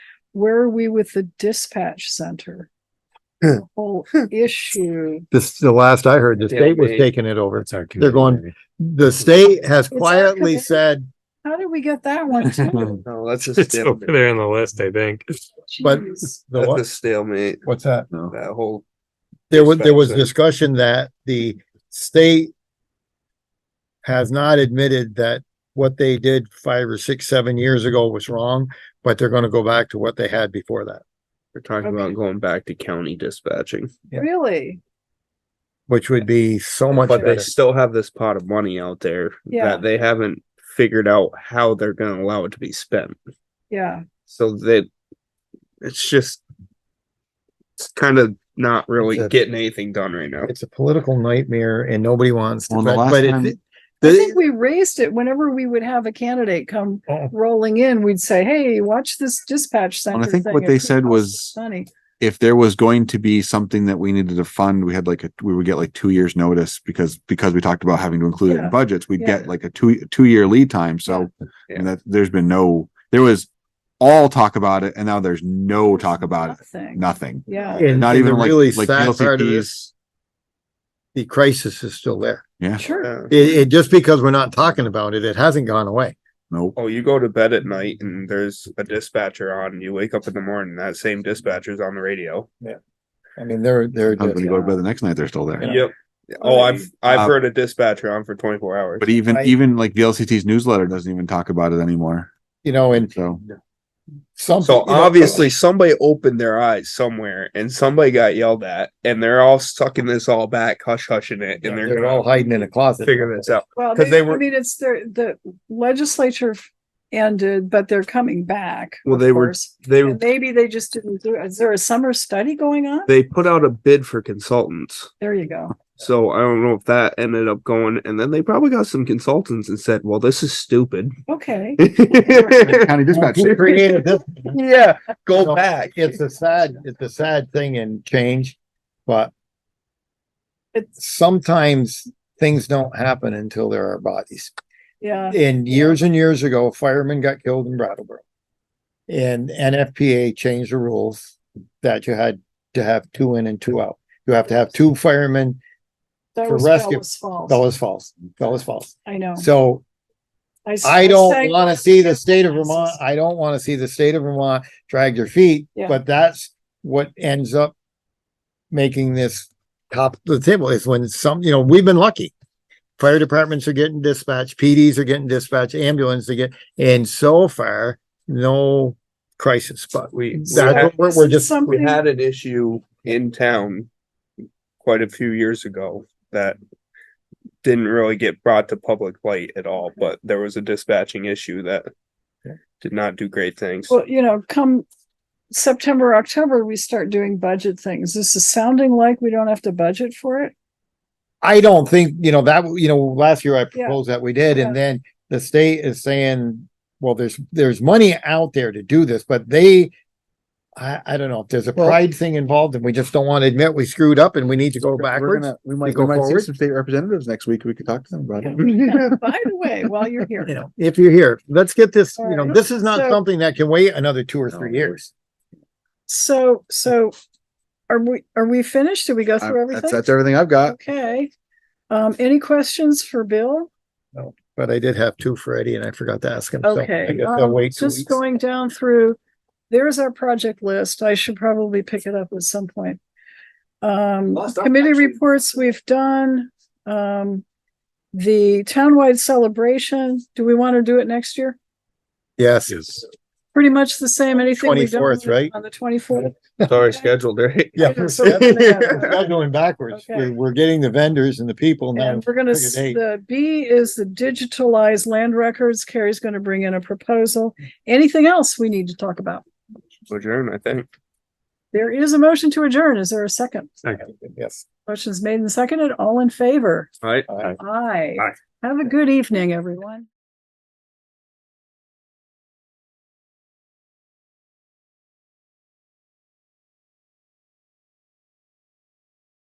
where are we with the dispatch center? The Whole issue. This, the last I heard, the The state was LB. taking it over. That's our. They're going- community. The state has our quietly commitment. said, How did we get that one? too? No, that's a It's over stalemate. there on the list, I think. but Jeez. the That's a what? stalemate, What's that? that whole, There was, there was Expensive. discussion that the state has not admitted that what they did five or six, seven years ago was wrong, but they're gonna go back to what they had before that, we're talking about Okay. going back to county dispatching. Really? which would be so much But they better. still have this pot of money out there Yeah. that they haven't figured out how they're gonna allow it to be spent. Yeah, So that, it's just. It's kind of not really It's a- getting anything done right now. It's a political nightmare and nobody wants to, Well, the but last but time- it- I the- think we raised it whenever we would have a candidate come Oh. rolling in, we'd say, hey, watch this dispatch center. I think thing. what It they could said cost was- us Money. if there was going to be something that we needed to fund, we had like a, we would get like two years notice because, because we talked about having to include it Yeah. in budgets, we'd Yeah. get like a two, two year lead time. So I mean, Yeah. that, there's been no, there was all talk about it and now there's no talk about it, Nothing. nothing. Yeah. and- Not and even the like, really like sad part of VLCTs. this, The crisis is still there. Yeah, Sure. Yeah. It, it, just because we're not talking about it, it hasn't gone away. nope. Oh, you go to bed at night and there's a dispatcher on, you wake up in the morning, that same dispatcher's on the radio. I mean, they're, they're. I was gonna just- go to bed the next night, they're still there. Yep. Oh, I've, I've Uh, heard a dispatcher on for twenty-four hours. But even, Right. even like VLCT's newsletter doesn't even talk about it anymore. You know, and So some. So you know, obviously somebody opened their eyes somewhere and somebody got yelled at and they're all sucking this all back, hush hushing it, and they're They're gonna all hiding in a closet. figure this out. Well, 'Cause they, they I were- mean, it's their, the legislature ended, but they're coming back. Well, of they were- course. They, And Maybe they just didn't do, is there a summer study going on? they put out a bid for consultants. There you go. So I don't know if that ended up going, and then they probably got some consultants and said, well, this is stupid. Okay. county dispatch, Who created this? Yeah, No, go back. It's a sad, it's a sad thing and change, but It's, sometimes things don't happen until there are bodies. yeah, And years and years ago, a fireman got killed in Brattleboro. And NFPA changed the rules that you had to have two in and two out. You have to have two firemen. that for was rescue- Bella's fault. Fellas false, fellas false. I know. So s- I say- don't want to see the state of Vermont, I don't want to see the state of Vermont drag their feet, Yeah. but that's what ends up making this top of the table is when some, you know, we've been lucky. Fire departments are getting dispatched, PDs are getting dispatched, ambulance to get, and so far, no crisis, but We, So that's what we're, this we're is just, we Something, had an issue in town quite a few years ago that didn't really get brought to public light at all, but there was a dispatching issue that did not do great things. well, you know, come September, October, we start doing budget things. This is sounding like we don't have to budget for it. I don't think, you know, that, you know, last year I Yeah. proposed that we did, Yeah. and then the state is saying, well, there's, there's money out there to do this, but they I, I don't know, if there's a Well- pride thing involved and we just don't want to admit we screwed up and we need to go We're backwards. gonna- We We might, go we might see forward. some state representatives next week. We could talk to them about it. By the way, while you're here, You know, if you're here, let's get this, you know, Alright. this is not So- something that can wait another two or No, three no. years. so, so are we, are we finished? Did we go I- through That's, everything? that's everything I've got. Okay. Um, any questions for Bill? But I did have two for Eddie and I forgot to ask him. so I Okay, guess they'll um, wait two just weeks. going down through, there's our project list. I should probably pick it up at some point. Um, Well, it's not committee actually- reports we've done, um, the townwide celebration, do we want to do it next year? Yes, Yes. Pretty much the same, anything we've done 24th, right? on the twenty-fourth. It's already scheduled, right? yeah. Yeah, so that's another- We're Going backwards. Okay. We're, we're getting the vendors and the people now. And we're gonna, pick a s- date. the B is the digitalized land records. Carrie's gonna bring in a proposal. Anything else we need to talk about? Adjourn, I think. There is a motion to adjourn. Is there a second? Yes. Motion's made and seconded. All in favor? All right. Aye. Aye. Have a good evening, everyone.